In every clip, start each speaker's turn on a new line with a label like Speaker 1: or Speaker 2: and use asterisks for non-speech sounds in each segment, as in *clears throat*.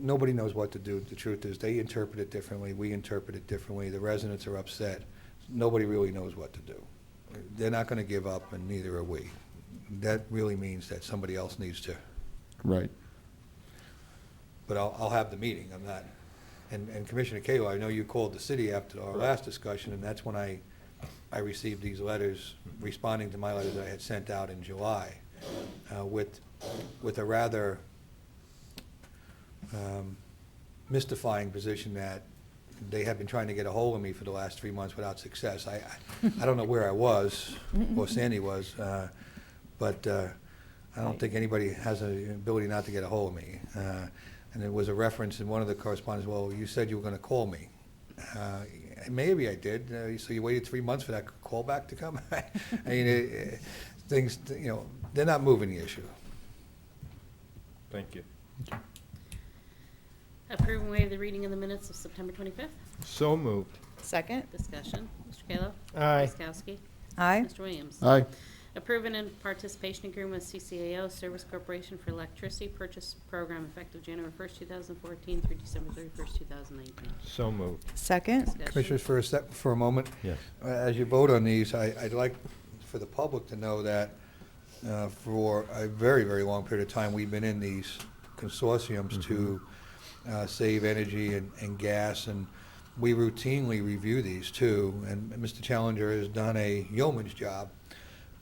Speaker 1: nobody knows what to do. The truth is, they interpret it differently, we interpret it differently, the residents are upset. Nobody really knows what to do. They're not going to give up, and neither are we. That really means that somebody else needs to,
Speaker 2: Right.
Speaker 1: but I'll, I'll have the meeting, I'm not. And, and Commissioner Kayla, I know you called the city after our last discussion, and that's when I, I received these letters responding to my letter that I had sent out in July uh, with, with a rather um, mystifying position that they had been trying to get a hold of me for the last three months without success. I, I- I don't know where I was, or Sandy was, uh, but uh, I don't think anybody has an ability not to get a hold of me. Uh, And there was a reference in one of the correspondence, well, you said you were going to call me. Uh, Maybe I did, uh, so you waited three months for that call back to come? *laughs* I mean, it- it- things, you know, they're not moving the issue.
Speaker 3: Thank you.
Speaker 4: Approve and waive the reading of the minutes of September 25th.
Speaker 3: So moved.
Speaker 5: Second.
Speaker 4: Discussion. Mr. Kayla.
Speaker 3: Aye.
Speaker 4: Ms. Kowski.
Speaker 5: Aye.
Speaker 4: Mr. Williams.
Speaker 2: Aye.
Speaker 4: Approve and in participation agreement with CCAO Service Corporation for Electricity Purchase Program effective January 1st, 2014 through December 31st, 2019.
Speaker 3: So moved.
Speaker 5: Second.
Speaker 4: Discussion.
Speaker 1: Commissioners, for a sec, for a moment,
Speaker 3: Yes.
Speaker 1: Uh, As you vote on these, I- I'd like for the public to know that uh, for a very, very long period of time, we've been in these consortiums to uh, save energy and and gas, and we routinely review these, too. And Mr. Challenger has done a yeoman's job *clears throat*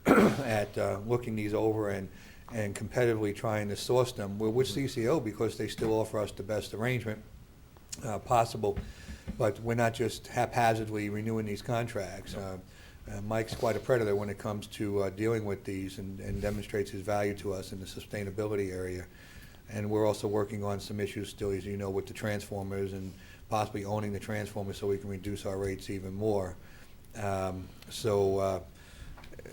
Speaker 1: at uh, looking these over and and competitively trying to source them. We're with CCO because they still offer us the best arrangement uh, possible, but we're not just haphazardly renewing these contracts. Uh, uh, Mike's quite a predator when it comes to uh, dealing with these and and demonstrates his value to us in the sustainability area. And we're also working on some issues still, as you know, with the transformers and possibly owning the transformers so we can reduce our rates even more. Um, So uh,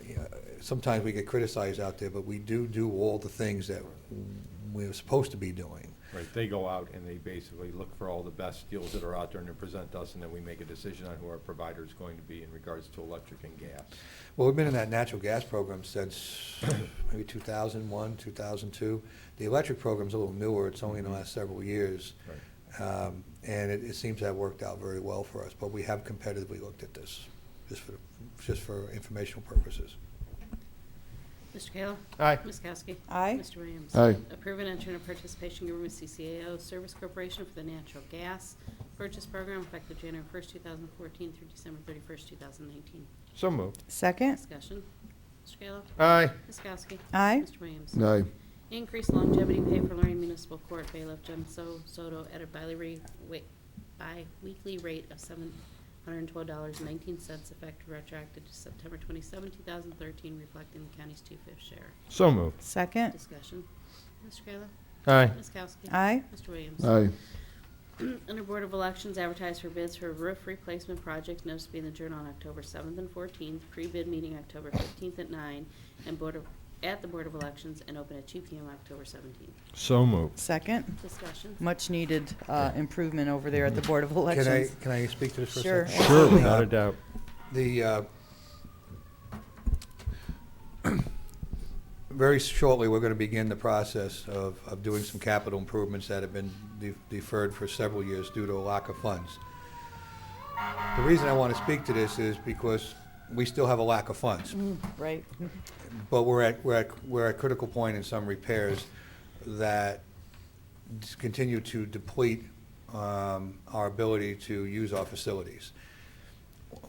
Speaker 1: you know, sometimes we get criticized out there, but we do do all the things that we're supposed to be doing.
Speaker 3: Right, they go out and they basically look for all the best deals that are out there and they present us, and then we make a decision on who our provider is going to be in regards to electric and gas.
Speaker 1: Well, we've been in that natural gas program since *coughs* maybe 2001, 2002. The electric program's a little newer, it's only in the last several years.
Speaker 3: Right.
Speaker 1: Um, And it it seems to have worked out very well for us, but we have competitively looked at this, just for, just for informational purposes.
Speaker 4: Mr. Kayla.
Speaker 3: Aye.
Speaker 4: Ms. Kowski.
Speaker 5: Aye.
Speaker 4: Mr. Williams.
Speaker 2: Aye.
Speaker 4: Approve and enter into participation agreement with CCAO Service Corporation for the Natural Gas Purchase Program effective January 1st, 2014 through December 31st, 2019.
Speaker 3: So moved.
Speaker 5: Second.
Speaker 4: Discussion. Mr. Kayla.
Speaker 3: Aye.
Speaker 4: Ms. Kowski.
Speaker 5: Aye.
Speaker 4: Mr. Williams.
Speaker 2: Aye.
Speaker 4: Increase longevity pay for Lorraine Municipal Court bailiff Jim So- Soto at a biweekly rate- wait, bi-weekly rate of $712.19 effective retroactive to September 27, 2013, reflecting the county's two-fifth share.
Speaker 3: So moved.
Speaker 5: Second.
Speaker 4: Discussion. Mr. Kayla?
Speaker 3: Aye.
Speaker 4: Ms. Kowski?
Speaker 5: Aye.
Speaker 4: Mr. Williams?
Speaker 2: Aye.
Speaker 4: *clears throat* Under Board of Elections, advertise for bids for roof replacement project, notice to be in the Journal on October 7th and 14th, pre-bid meeting October 15th at 9, and Board of, at the Board of Elections, and open at 2 PM October 17th.
Speaker 3: So moved.
Speaker 5: Second.
Speaker 4: Discussion.
Speaker 5: Much needed uh, improvement over there at the Board of
Speaker 1: Can I,
Speaker 5: Elections. *laughs*
Speaker 1: can I speak to this for a
Speaker 5: Sure.
Speaker 1: second?
Speaker 3: Sure,
Speaker 1: Uh,
Speaker 3: without a doubt.
Speaker 1: The, uh, very shortly, we're going to begin the process of, of doing some capital improvements that have been de- deferred for several years due to a lack of funds. The reason I want to speak to this is because we still have a lack of funds
Speaker 5: Right.
Speaker 1: but we're at, we're at, we're at critical point in some repairs that just continue to deplete um, our ability to use our facilities.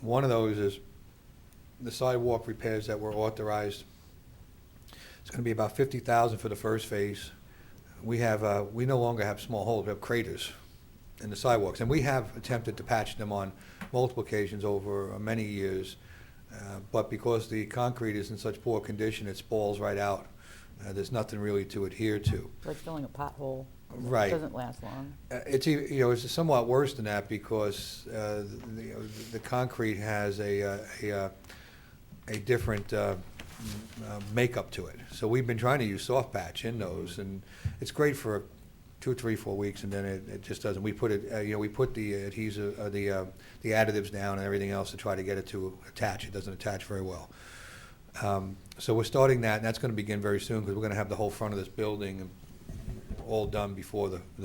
Speaker 1: One of those is the sidewalk repairs that were authorized. It's going to be about fifty thousand for the first phase. We have, uh, we no longer have small holes, we have craters in the sidewalks. And we have attempted to patch them on multiple occasions over many years. Uh, But because the concrete is in such poor condition, it spalls right out. Uh, There's nothing really to adhere to.
Speaker 6: Like filling a pothole.
Speaker 1: Right.
Speaker 6: Doesn't last long.
Speaker 1: Uh, It's, e- you know, it's somewhat worse than that because uh, the, you know, the concrete has a, uh, a, uh, a different uh, m- uh, makeup to it. So we've been trying to use soft patch in those, and it's great for two, three, four weeks, and then it, it just doesn't. We put it, uh, you know, we put the adhesive, uh, the, uh, the additives down and everything else to try to get it to attach. It doesn't attach very well. Um, So we're starting that, and that's going to begin very soon, because we're going to have the whole front of this building all done before the, the